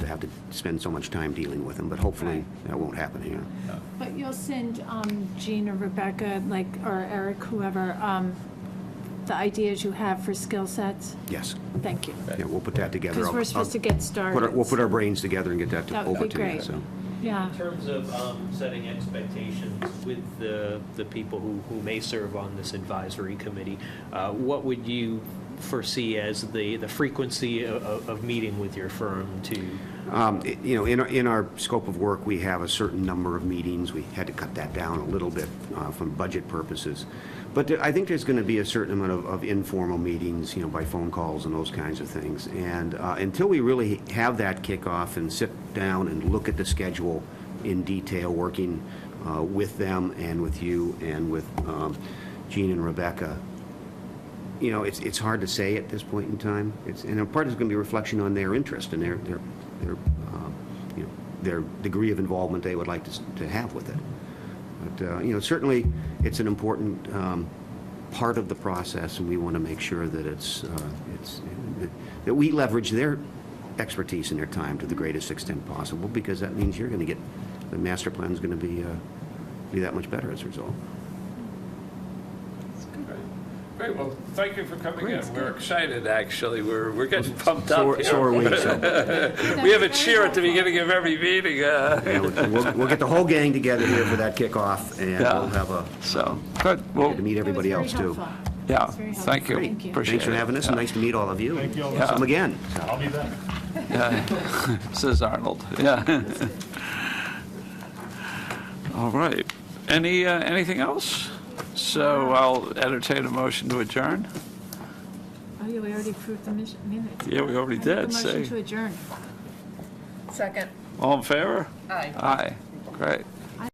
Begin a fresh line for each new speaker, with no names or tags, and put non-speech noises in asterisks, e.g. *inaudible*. have to spend so much time dealing with them, but hopefully
Right.
that won't happen here.
But you'll send um, Jean or Rebecca, like, or Eric, whoever, um, the ideas you have for skill sets?
Yes.
Thank you.
Yeah, we'll put that together.
Because
I'll-
we're supposed to
I'll
get
put our-
started.
We'll put our brains together and get that to-
That would
over
be
to you,
great.
so.
*laughs*
Yeah,
In terms of um, setting expectations with the, the people who, who may serve on this advisory committee, uh, what would you foresee as the, the frequency of, of meeting with your firm to?
Um, it- You know, in, our- in our scope of work, we have a certain number of meetings. We had to cut that down a little bit uh, from budget purposes. But there- I think there's going to be a certain amount of, of informal meetings, you know, by phone calls and those kinds of things. And uh, until we really have that kickoff and sit down and look at the schedule in detail, working uh, with them and with you and with um, Gene and Rebecca, you know, it's, it's hard to say at this point in time. It's, and a part is going to be reflection on their interest and their, their, their, um, you know, their degree of involvement they would like to, s- to have with it. But, uh, you know, certainly, it's an important um, part of the process, and we want to make sure that it's, uh, it's, that we leverage their expertise and their time to the greatest extent possible, because that means you're going to get, the master plan's going to be, uh, be that much better as a result.
Great, well, thank you for coming in. We're excited, actually. We're, we're getting pumped
So
up
are- so are
here.
we, so,
We have a cheer at the beginning of every meeting. uh,
yeah, we'll- we'll, we'll get the whole gang together here for that kickoff, and we'll
Yeah.
have a,
So, good, well,
to meet everybody else, too.
yeah,
That's very
thank
helpful.
you.
Thank you.
Appreciate
Thanks for
it.
having us, and nice to meet all of you. Thank you all.
Yeah.
Come again.
I'll be back.
*laughs* Says Arnold, yeah. *laughs* All right, any, uh, anything else? So I'll entertain a motion to adjourn.
Oh, yeah, we already approved the mis- minutes.
Yeah, we already
I make a
did,
motion
see.
to adjourn.
Second.
All in favor?
Aye.
Aye, great.